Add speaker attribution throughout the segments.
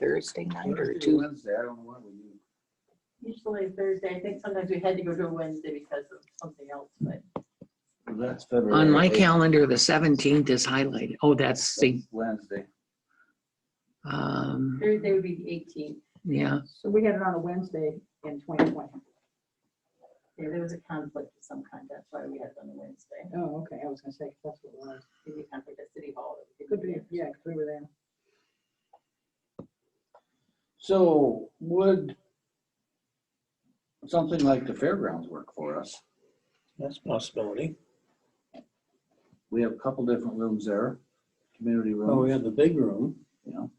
Speaker 1: Thursday night or
Speaker 2: Thursday or
Speaker 1: two.
Speaker 2: Wednesday, I don't know what we do.
Speaker 3: Usually Thursday, I think sometimes we had to go to a Wednesday because of something else, but
Speaker 2: Well, That's February.
Speaker 1: On my
Speaker 2: eighth.
Speaker 1: calendar, the seventeenth is highlighted. Oh, that's the,
Speaker 2: That's Wednesday.
Speaker 1: um,
Speaker 3: Thursday would be the eighteenth.
Speaker 1: yeah,
Speaker 4: So we had it on a Wednesday in 2020.
Speaker 3: Yeah, there was a conflict of some kind, that's why we had it on a Wednesday.
Speaker 4: Oh, okay, I was gonna say, that's what it was.
Speaker 3: Maybe a conflict at City Hall. that we
Speaker 4: Could
Speaker 3: couldn't do.
Speaker 4: be, yeah, 'cause we were there.
Speaker 2: So would something like the fairgrounds work for us?
Speaker 5: That's a possibility.
Speaker 2: We have a couple different rooms there, community
Speaker 5: Well, Oh, we
Speaker 2: rooms,
Speaker 5: have the big room.
Speaker 2: you know.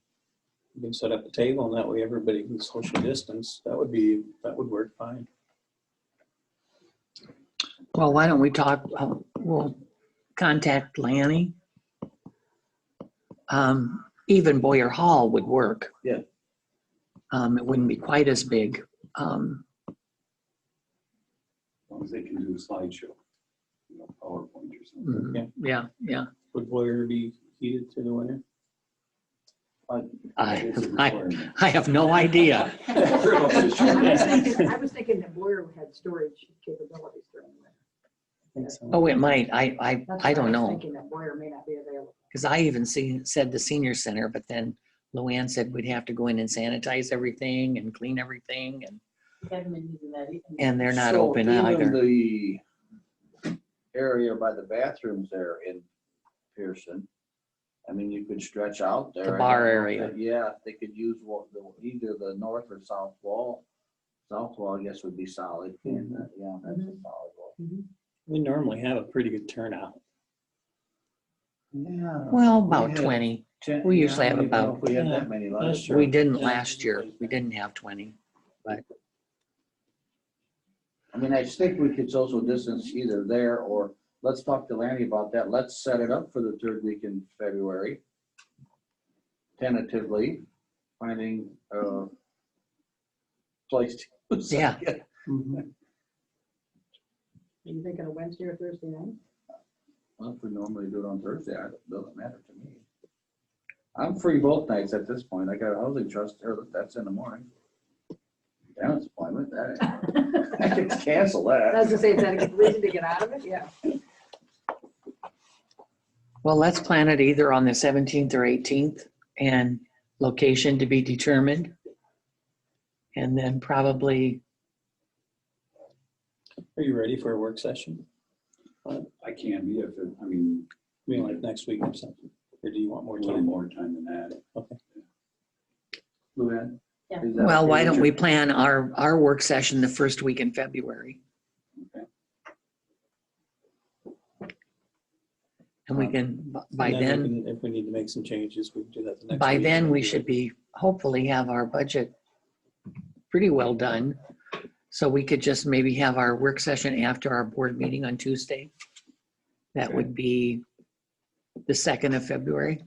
Speaker 5: We can set up a table and that way everybody can social distance. That would be, that would work fine.
Speaker 1: well, why don't we talk, uh, we'll contact Lanny. Um, even Boyer Hall would work.
Speaker 2: Yeah.
Speaker 1: Um, it wouldn't be quite as big. Um,
Speaker 6: As long as they can do a slideshow, you know, PowerPoint or something.
Speaker 1: mm,
Speaker 5: Yeah.
Speaker 1: yeah, yeah.
Speaker 5: Would Boyer be heated through the winter?
Speaker 1: I,
Speaker 6: It's a
Speaker 1: Mm. I,
Speaker 6: requirement.
Speaker 1: I have no idea.
Speaker 4: I was thinking- I was thinking that Boyer had storage capabilities during the winter.
Speaker 1: Oh, it might. I, I,
Speaker 4: That's
Speaker 1: I
Speaker 4: why
Speaker 1: don't
Speaker 4: was
Speaker 1: know.
Speaker 4: Thinking that Boyer may not be available.
Speaker 1: Because I even seen, said the senior center, but then Luann said we'd have to go in and sanitize everything and clean everything and,
Speaker 3: We haven't been using that either.
Speaker 1: and they're not
Speaker 2: So
Speaker 1: open
Speaker 2: even
Speaker 1: either.
Speaker 2: The area by the bathrooms there in Pearson, I mean, you could stretch out there. I don't
Speaker 1: bar
Speaker 2: know if
Speaker 1: area.
Speaker 2: they- Yeah, if they could use what, the- either the north or south wall. South wall, I guess, would be solid. and, uh, Yeah, that's a solid wall.
Speaker 5: We normally have a pretty good turnout.
Speaker 2: Yeah.
Speaker 1: Well,
Speaker 2: We
Speaker 1: about
Speaker 2: had
Speaker 1: twenty.
Speaker 2: ten-
Speaker 1: we
Speaker 2: yeah,
Speaker 1: usually
Speaker 2: I
Speaker 1: have
Speaker 2: don't even know
Speaker 1: about-
Speaker 2: if We had
Speaker 5: Yeah,
Speaker 2: that many last
Speaker 5: that's
Speaker 2: year.
Speaker 1: We
Speaker 5: Sure.
Speaker 1: didn't
Speaker 5: Yeah.
Speaker 1: last year. We didn't have twenty.
Speaker 2: I mean, I think we could social distance either there or, let's talk to Lanny about that. Let's set it up for the third week in February. Tentatively, finding a place to.
Speaker 1: Yeah.
Speaker 4: Are you thinking a Wednesday or Thursday night?
Speaker 2: Well, if we normally do it on Thursday, I- it doesn't matter to me. I'm free both nights at this point. I got a housing trust, or that's in the morning. Down appointment, that, I could cancel that.
Speaker 4: I was gonna say, is that a reason to get out of it? Yeah.
Speaker 1: Well, let's plan it either on the seventeenth or eighteenth and location to be determined. And then probably,
Speaker 5: Are you ready for a work session?
Speaker 6: I can be if, it- I mean,
Speaker 5: I mean, like next week or something? Or do you want
Speaker 6: a
Speaker 5: more
Speaker 6: little
Speaker 5: time?
Speaker 6: more time than that.
Speaker 2: Luann?
Speaker 3: Yeah.
Speaker 2: Is that
Speaker 1: well,
Speaker 2: okay
Speaker 1: why
Speaker 2: with
Speaker 1: don't
Speaker 2: you?
Speaker 1: we plan our, our work session the first week in February?
Speaker 6: Okay.
Speaker 1: And we can, by
Speaker 5: And we
Speaker 1: then.
Speaker 5: can- If we need to make some changes, we can do that the next.
Speaker 1: By
Speaker 5: week.
Speaker 1: then, we should be, hopefully have our budget pretty well done. So we could just maybe have our work session after our board meeting on Tuesday. That would be the second of February.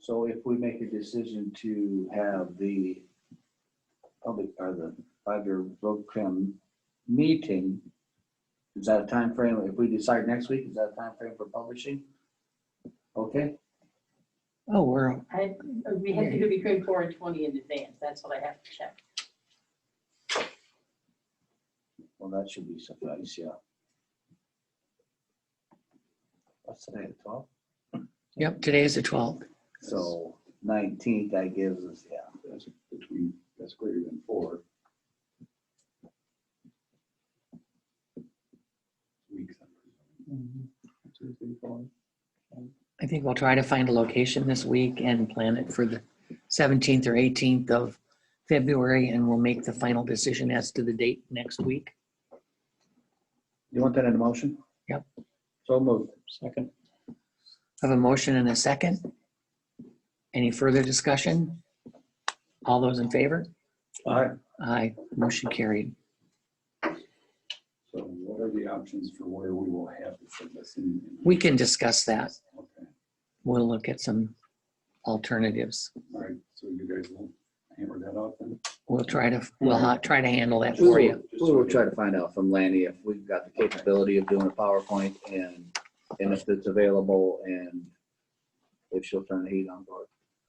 Speaker 2: So if we make a decision to have the public, or the five-year road crim meeting, is that a time frame? If we decide next week, is that a time frame for publishing? Okay,
Speaker 1: Oh, we're,
Speaker 3: I, we have to do between four and twenty in advance, that's what I have to check.
Speaker 2: well, that should be suffice, yeah. What's today, the twelfth?
Speaker 1: yep, today is the 12th.
Speaker 2: So nineteenth, that gives us, yeah.
Speaker 6: That's between, that's greater than four. Weeks.
Speaker 5: Mhm. One, two, three, four.
Speaker 1: I think we'll try to find a location this week and plan it for the 17th or 18th of February. And we'll make the final decision as to the date next week.
Speaker 2: You want that in a motion?
Speaker 1: Yep.
Speaker 2: So moved.
Speaker 5: Second.
Speaker 1: Have a motion and a second. Any further discussion? All those in favor?
Speaker 2: All right,
Speaker 1: Aye, motion carried.
Speaker 6: So what are the options for where we will have to put this in?
Speaker 1: We can discuss that.
Speaker 6: Okay,
Speaker 1: We'll look at some alternatives.
Speaker 6: all right, so you guys will hammer that out then?
Speaker 1: We'll try to, we'll ha- try to handle that
Speaker 2: We
Speaker 1: for
Speaker 2: will,
Speaker 1: you.
Speaker 2: we will try to find out from Lanny if we've got the capability of doing a PowerPoint and, and if it's available and if she'll turn the heat on board.